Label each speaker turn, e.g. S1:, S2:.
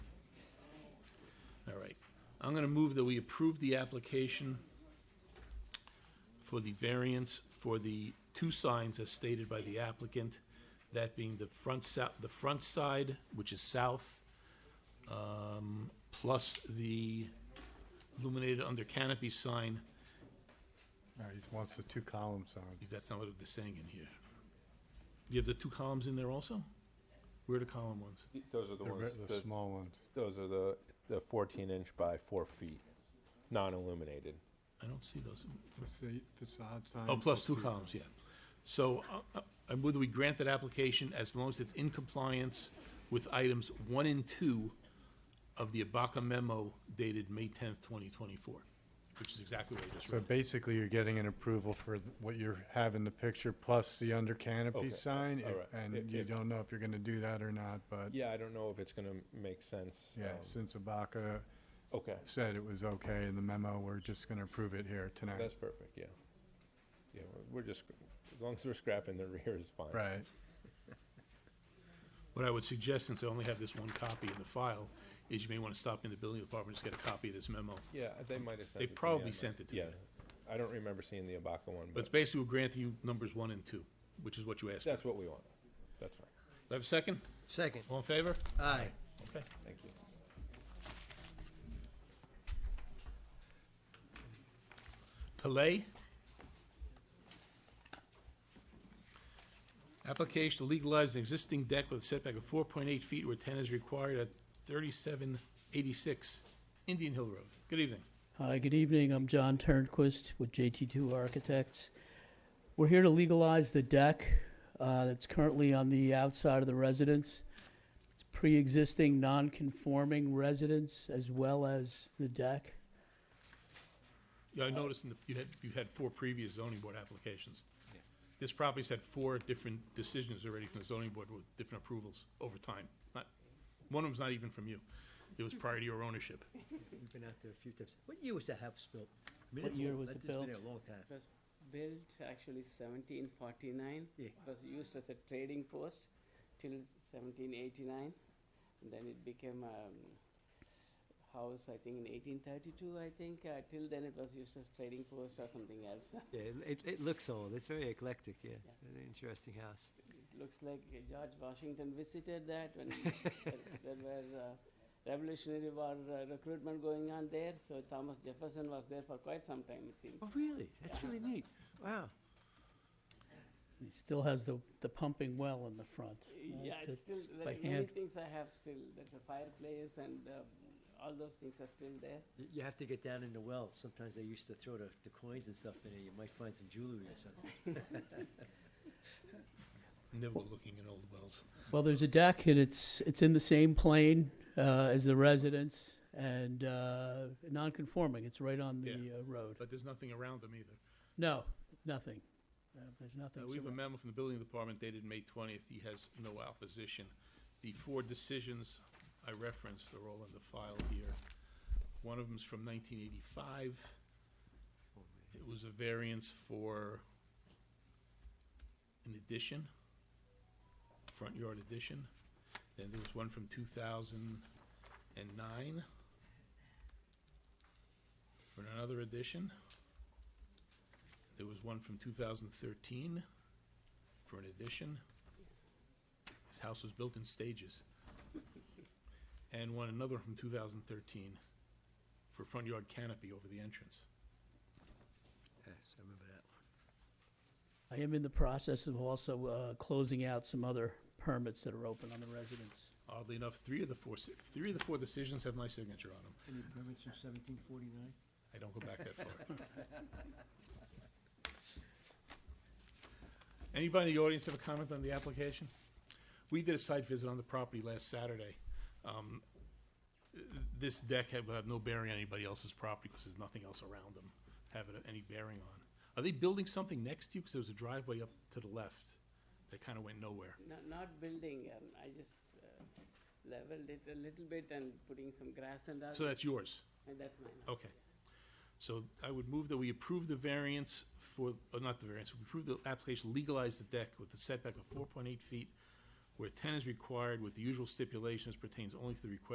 S1: I'm gonna move that we approve the application for the variance for the two signs as stated by the applicant, that being the front sa- the front side, which is south, um, plus the illuminated under canopy sign,
S2: No, he just wants the two column signs.
S1: that's not what they're saying in here. You have the two columns in there also? Where are the column ones?
S3: Y- Those are the
S2: The,
S3: ones,
S2: re- the
S3: the-
S2: small ones.
S3: those are the, the fourteen inch by four feet, non-illuminated.
S1: I don't see those.
S2: Facade signs.
S1: Oh, plus two columns, yeah. So uh, uh, I move that we grant that application as long as it's in compliance with items one and two of the Abaca memo dated May tenth, twenty twenty-four, which is exactly what I just
S2: So
S1: read.
S2: basically, you're getting an approval for th- what you have in the picture, plus the under
S3: Okay,
S2: canopy
S3: uh,
S2: sign, if-
S3: all right.
S2: and
S3: If-
S2: you
S3: if-
S2: don't know if you're gonna do that or not, but,
S3: Yeah, I don't know if it's gonna make sense.
S2: yeah,
S3: um,
S2: since Abaca
S3: Okay,
S2: said it was okay in the memo, we're just gonna approve it here tonight.
S3: that's perfect, yeah. Yeah, we're- we're just, as long as we're scrapping the rear is fine.
S2: Right,
S1: What I would suggest, since I only have this one copy in the file, is you may want to stop in the building department, just get a copy of this memo.
S3: Yeah, they might have sent
S1: They
S3: it to me
S1: probably
S3: on the-
S1: sent it to
S3: Yeah,
S1: me.
S3: I don't remember seeing the Abaca one,
S1: But it's
S3: but
S1: basically we're granting you numbers one and two, which is what you asked for. Do
S3: that's what we want. That's fine.
S1: I have a second?
S4: Second.
S1: All in favor?
S4: Aye.
S1: Okay.
S3: Thank you.
S1: Pillay. Application to legalize an existing deck with a setback of four point eight feet where ten is required at thirty-seven eighty-six Indian Hill Road. Good evening.
S5: Hi, good evening. I'm John Turnquist with JT2 Architects. We're here to legalize the deck uh, that's currently on the outside of the residence. It's pre-existing non-conforming residence as well as the deck.
S1: Yeah, I noticed in the, you had, you had four previous zoning board applications. This property's had four different decisions already from the zoning board with different approvals over time. Not, one of them's not even from you. It was prior to your ownership.
S4: We've been out there a few times. What year was that house built? I mean,
S5: What
S4: it's
S5: year
S4: old.
S5: was
S4: That-
S5: it
S4: It's
S5: built?
S4: been there a long time.
S6: was built actually 1749.
S4: Yeah.
S6: It was used as a trading post till 1789. And then it became a um, house, I think, in 1832, I think. Uh, till then, it was used as trading post or something else. it
S4: Yeah, it- it, it looks old. It's very eclectic, yeah. Very interesting house.
S6: looks like uh, George Washington visited that when there, there were uh, Revolutionary War uh, recruitment going on there. So Thomas Jefferson was there for quite some time, it seems.
S4: Oh, really? That's really neat. Wow.
S5: It still has the, the pumping well in the front. right?
S6: Yeah, it's still,
S5: Uh, That's
S6: there
S5: By
S6: are many
S5: hand.
S6: things I have still, there's a fireplace and um, all those things are still there.
S4: Y- You have to get down in the well. Sometimes they used to throw the, the coins and stuff in it. You might find some jewelry or something.
S1: Never go looking in old wells.
S5: Well, there's a deck and it's, it's in the same plane uh, as the residence and uh, non-conforming. It's right on the
S1: Yeah.
S5: uh, road.
S1: But there's nothing around them either.
S5: No, nothing. Uh, There's nothing.
S1: Uh, We have a
S5: surrounding-
S1: memo from the building department dated May twentieth, he has no opposition. The four decisions I referenced are all in the file here. One of them's from nineteen eighty-five.
S4: Oh,
S1: It was a variance for an addition, front yard addition. Then there was one from two thousand and nine for another addition. There was one from 2013 for an addition. This house was built in stages. And one, another from 2013 for front yard canopy over the entrance.
S4: Yes, I remember that one.
S5: I am in the process of also uh, closing out some other permits that are open on the residence.
S1: Oddly enough, three of the four, si- three of the four decisions have my signature on them.
S4: Any permits from seventeen forty-nine?
S1: I don't go back that far. Anybody in the audience have a comment on the application? We did a site visit on the property last Saturday. Um, This deck have, have no bearing on anybody else's property because there's nothing else around them having any bearing on. Are they building something next to you? Because there was a driveway up to the left that kind of went nowhere.
S6: Not, not building, um, I just uh, leveled it a little bit and putting some grass and all,
S1: So that's yours?
S6: and that's mine.
S1: Okay. So I would move that we approve the variance for, uh, not the variance, we approve the application, legalize the deck with a setback of four point eight feet where ten is required with the usual stipulations pertains only to the request